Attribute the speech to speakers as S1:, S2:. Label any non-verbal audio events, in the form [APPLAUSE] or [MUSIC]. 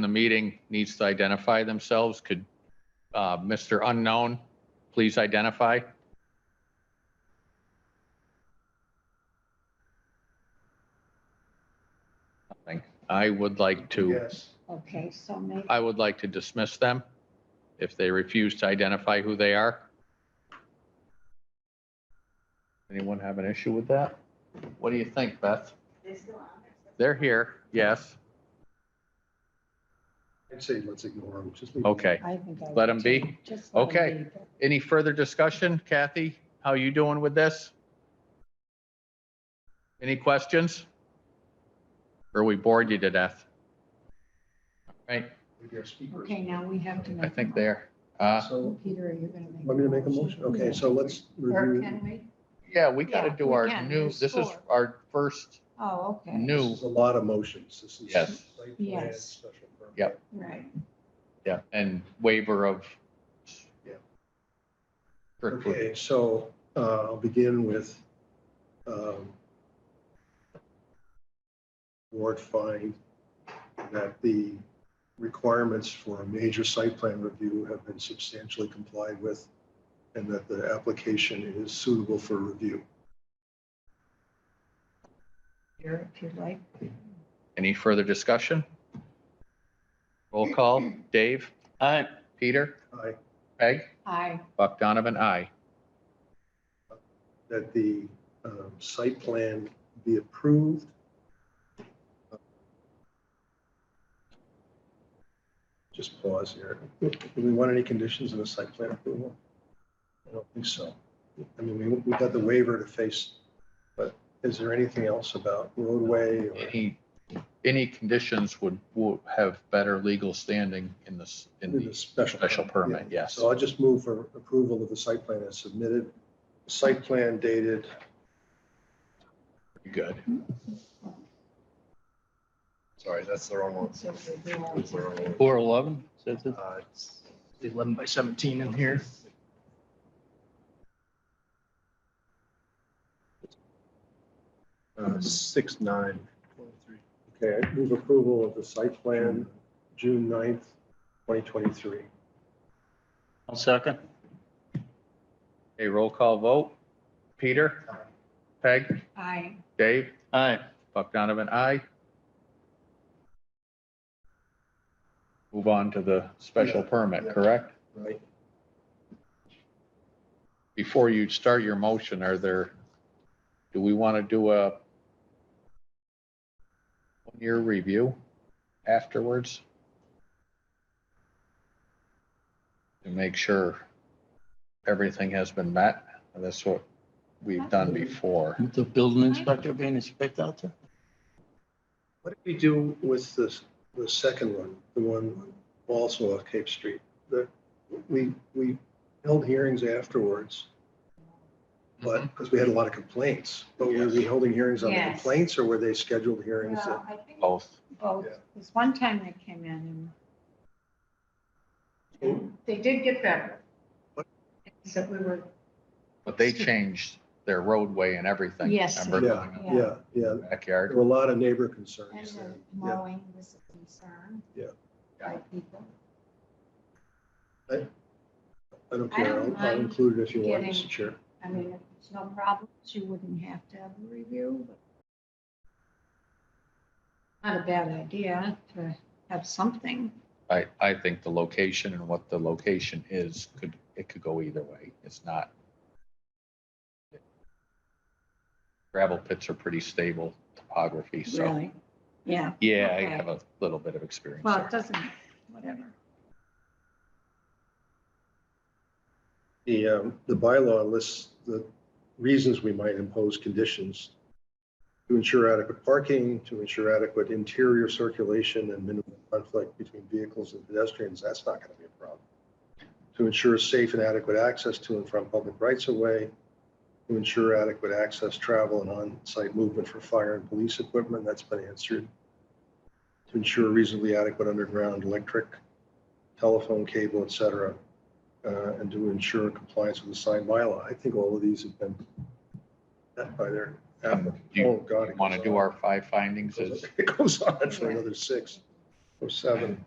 S1: the meeting needs to identify themselves. Could uh, Mr. Unknown please identify? Nothing. I would like to,
S2: Yes.
S3: Okay, so maybe,
S1: I would like to dismiss them if they refuse to identify who they are. Anyone have an issue with that? What do you think, Beth? They're here, yes.
S2: I'd say let's ignore them. Just leave 'em.
S1: Okay.
S3: I think. I
S1: Let
S3: would
S1: 'em be?
S3: too. Just let 'em
S1: Okay.
S3: be, but
S1: Any further discussion? Kathy, how you doing with this? Any questions? Or we bored you to death? All Right,
S2: Leave your speakers.
S3: Okay, now we have to make.
S1: I think there. Uh,
S2: So,
S3: Peter, are you going to make?
S2: want me to make a motion? Okay, so let's
S3: Or
S2: review.
S3: can we?
S1: yeah, we gotta
S3: Yeah,
S1: do
S3: we
S1: our
S3: can.
S1: new,
S3: There's
S1: this is
S3: four.
S1: our first
S3: Oh, okay.
S2: This
S1: new,
S2: is a lot of motions. This is.
S1: Yes.
S2: site plan,
S3: Yes.
S2: special permit.
S1: Yep.
S3: Right.
S1: yeah, and waiver of.
S2: Yeah.
S1: Kirkwood.
S2: Okay, so uh, I'll begin with um, Ward find that the requirements for a major site plan review have been substantially complied with and that the application is suitable for review.
S3: Here, if you'd like.
S1: Any further discussion? Roll call, Dave? Aye. Peter?
S2: I,
S1: Peg?
S3: Aye.
S1: Buck Donovan, aye.
S2: that the um, site plan be approved. Just pause here. Do we want any conditions in the site plan approval? I don't think so. I mean, we, we got the waiver to face, but is there anything else about roadway or?
S1: any, any conditions would, would have better legal standing in this, in
S2: With a
S1: the special permit,
S2: yeah.
S1: yes.
S2: So I'll just move for approval of the site plan as submitted. Site plan dated
S1: Good.
S2: Sorry, that's the wrong one.
S3: So we do all-
S2: That's the wrong one.
S4: Four eleven, says it.
S2: Uh, it's
S4: Eleven by seventeen in here.
S2: uh, Six, nine. Okay, I move approval of the site plan, June 9th, 2023.
S4: I'll second.
S1: A roll call vote. Peter? Peg?
S3: Aye.
S1: Dave?
S4: Aye.
S1: Buck Donovan, aye. Move on to the special permit,
S2: Yeah.
S1: correct?
S2: Right.
S1: Before you start your motion, are there, do we want to do a one-year review afterwards? To make sure everything has been met, and that's what we've done before.
S4: With The building inspector being inspected out there?
S2: What did we do with this, the second one, the one also off Cape Street? The, we, we held hearings afterwards, but, because we had a lot of complaints. But were we holding hearings on the
S3: Mm-hmm. Yes.
S2: complaints or were they scheduled hearings? that-
S3: Well, I think
S1: Both.
S3: both,
S2: Yeah.
S3: because one time they came in and- and they did get better.
S2: Oh. What?
S3: So we were,
S1: But they changed their roadway and everything.
S3: Yes.
S1: remember,
S2: Yeah.
S1: going in
S2: Yeah, yeah,
S1: the Backyard.
S2: there were a lot of neighbor
S3: and uh,
S2: concerns
S3: the
S2: there. Yeah.
S3: mowing was a concern.
S2: Yeah.
S3: By people.
S2: I don't
S3: I
S2: care.
S3: don't
S2: I'll- I'll
S3: mind
S2: include it if you want,
S3: getting-
S2: Mr. Chair.
S3: I mean, if it's no problems, you wouldn't have to have a review, but not a bad idea to have something.
S1: I, I think the location and what the location is could, it could go either way. It's not. Gravel pits are pretty stable topography, so.
S3: Really? Yeah,
S1: Yeah, I
S3: Okay.
S1: have a little bit of experience
S3: well, it
S1: there.
S3: doesn't, whatever.
S2: The, um, the bylaw lists the reasons we might impose conditions to ensure adequate parking, to ensure adequate interior circulation and minimum conflict between vehicles and pedestrians. That's not going to be a problem. To ensure safe and adequate access to and from public rights of way, to ensure adequate access, travel and on-site movement for fire and police equipment. That's been answered. To ensure reasonably adequate underground electric, telephone cable, et cetera uh, and to ensure compliance with the signed bylaw. I think all of these have been met by their
S1: Um,
S2: applicant.
S1: Do
S2: Oh,
S1: you
S2: God. it [LAUGHS]
S1: want to
S2: goes
S1: do
S2: on.
S1: our five findings
S2: It goes
S1: as,
S2: on- It goes on for another six. oh seven.